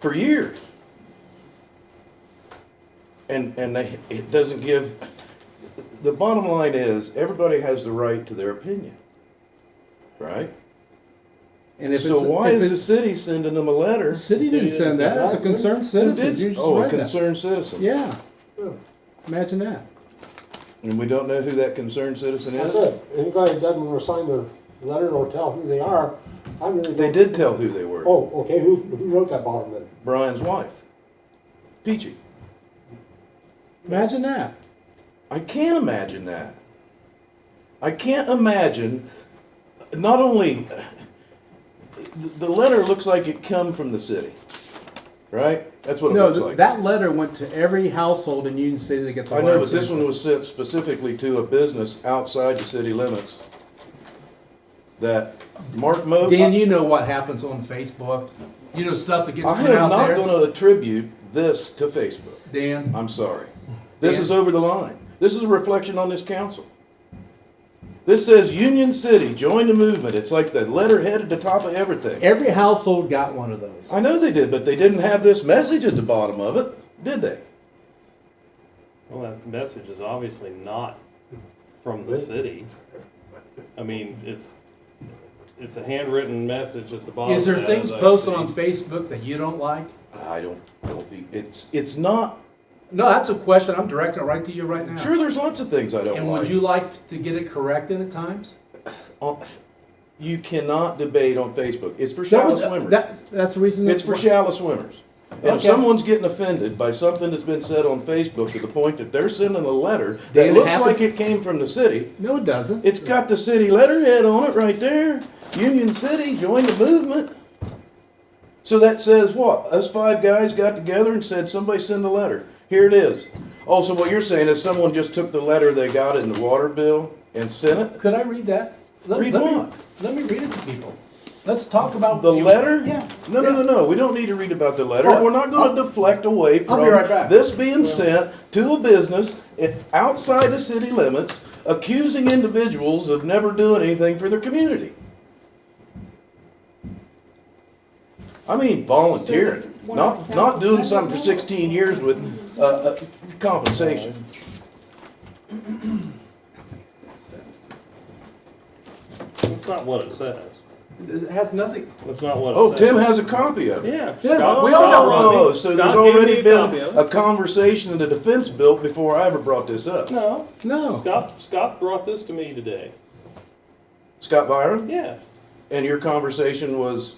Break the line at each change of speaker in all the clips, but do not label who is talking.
for years. And, and they, it doesn't give, the bottom line is, everybody has the right to their opinion, right?
And if
So
it's-
why
if
is the
it's-
city sending them a letter?
the city didn't
City
send that? It's a
doesn't-
concerned citizen. You just
Oh, a
read that.
concerned citizen.
Yeah, Oh.
Hmm.
imagine that.
And we don't know who that concerned citizen is?
That's it. Anybody that doesn't want to sign their letter or tell who they are, I really
They
don't.
did tell who they were.
Oh, okay, who, who wrote that bottom then?
Brian's wife, Peachy.
Imagine that.
I can't imagine that. I can't imagine. Not only the, the letter looks like it come from the city, right? That's what it
No,
looks
th-
like.
that letter went to every household in Union City that gets a
I
water
know, but this
system.
one was sent specifically to a business outside the city limits. That Mark Mo.
Dan, you know what happens on Facebook. You know stuff that gets
I
put
am
out
not
there.
going to attribute this to Facebook.
Dan,
I'm sorry.
Mm-hmm.
This
Dan.
is over the line. This is a reflection on this council. This says Union City, join the movement. It's like the letterhead at the top of everything.
every household got one of those.
I know they did, but they didn't have this message at the bottom of it, did they?
Well, that message is obviously not from the city. I mean, it's, it's a handwritten message at the bottom.
Is there
that
things
I
posted
see.
on Facebook that you don't like?
I don't, don't be, it's, it's not,
No, that's a question. I'm directing it right to you right now.
sure, there's lots of things I don't
And would
like.
you like to get it corrected at times?
Uh, You cannot debate on Facebook. It's for
That
shallow
was-
swimmers.
that- that's the reason.
It's for shallow swimmers. And if
Okay.
someone's getting offended by something that's been said on Facebook to the point that they're sending a letter
Dan,
that
it
looks
happened-
like it came from the city,
No, it doesn't.
It's got the city letterhead on it right there. Union City, join the movement. So that says what? Us five guys got together and said, somebody send a letter. Here it is. Also, what you're saying is someone just took the letter they got in the water bill and sent it?
Could I read that? Let,
Read
let
what?
Me, let me read it to people. Let's talk about
The letter?
Yeah.
No, no, no,
yeah.
no. We don't need to read about the letter.
Oh,
We're not going to deflect away
I'll
from
be right back.
this being sent to a business i- outside the city limits, accusing individuals of never doing anything for their community. I mean, volunteering,
So,
not
what-
not doing something for 16 years with uh, uh, compensation.
That's not what it says.
It has nothing.
That's not what it
Oh,
says.
Tim has a copy of it.
Yeah.
Yeah,
Scott-
Oh,
we all
Scott
know.
Rodney-
so
Scott
there's
gave me
already
a
been
copy of
a
it.
conversation in the defense built before I ever brought this up.
No,
Oh.
No.
Scott, Scott brought this to me today.
Scott Byron?
Yes.
And your conversation was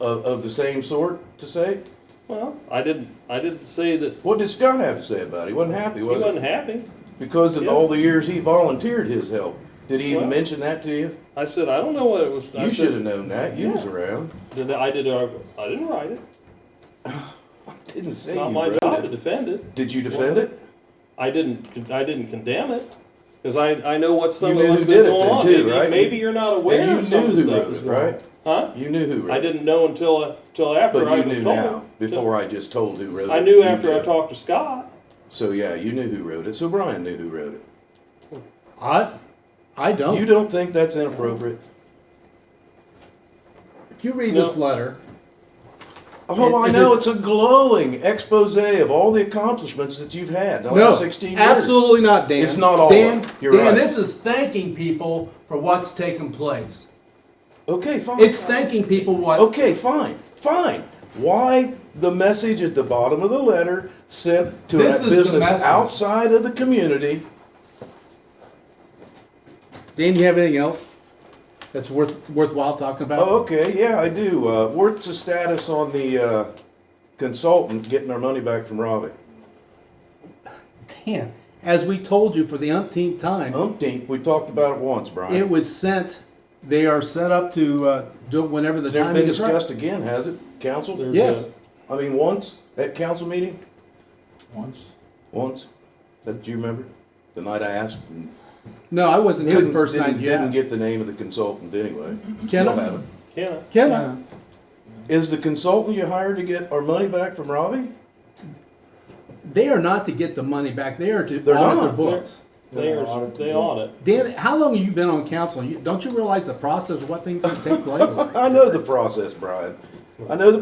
of, of the same sort to say?
Well, I didn't, I didn't say that he
What did Scott have to say about it? He wasn't happy, was
wasn't
he?
happy.
Because of
Yeah.
all the years he volunteered his help. Did he even
Well-
mention that to you?
I said, I don't know what it was. I
You
said,
should have known that. You was
Yeah.
around.
Did I, I did, uh, I didn't write it.
Didn't say
It's not
you
my
wrote
job
it.
to defend it.
Did you defend it?
I didn't, I didn't condemn it, because I, I know what some
You
of
knew
what's
who
been
did it
going
then,
on.
too,
maybe,
right?
maybe you're not aware
And
of
you
some
knew
of
who
the stuff
wrote
that's
it,
going on.
right?
Huh?
You knew who wrote
I
it.
didn't know until until after I
But you
was
knew
told.
now, before I just told who wrote it.
I knew
You
after I
did.
talked to Scott.
So yeah, you knew who wrote it. So Brian knew who wrote it.
I I don't.
You don't think that's inappropriate?
if you read
No.
this letter,
Oh,
It-
I
it
know. It's
is-
a glowing expose of all the accomplishments that you've had in the
no,
last 16 years.
absolutely not, Dan.
It's not all
Dan,
of it. You're
Dan,
right.
this is thanking people for what's taken place.
Okay, fine.
It's thanking people what.
okay, fine, fine. Why the message at the bottom of the letter sent to
This
a
is the
business
message.
outside of the community?
Dan, you have anything else that's worth worthwhile talking about?
Oh, okay, yeah, I do. Uh, what's the status on the uh, consultant getting our money back from Robbie?
Dan, as we told you for the umpteenth time,
Oh. Umpteenth, we talked about it once, Brian.
it was sent. They are set up to uh, do it whenever the
It's never
timing
been
is right.
discussed again, has it, council?
There's
Yes.
a-
I mean, once at council meeting?
Once,
Once? That do you remember? The night I asked. and
No, I wasn't here the
couldn't-
first
didn't-
night you
Didn't
asked.
get the name of the consultant anyway.
Ken?
Still haven't.
Kenna.
Ken,
Yeah.
Is the consultant you hired to get our money back from Robbie?
they are not to get the money back. They are to
They're
audit
not.
their books.
They are, they audit.
Dan, how long have you been on council? You, don't you realize the process of what things take place?
I know the process, Brian. I know the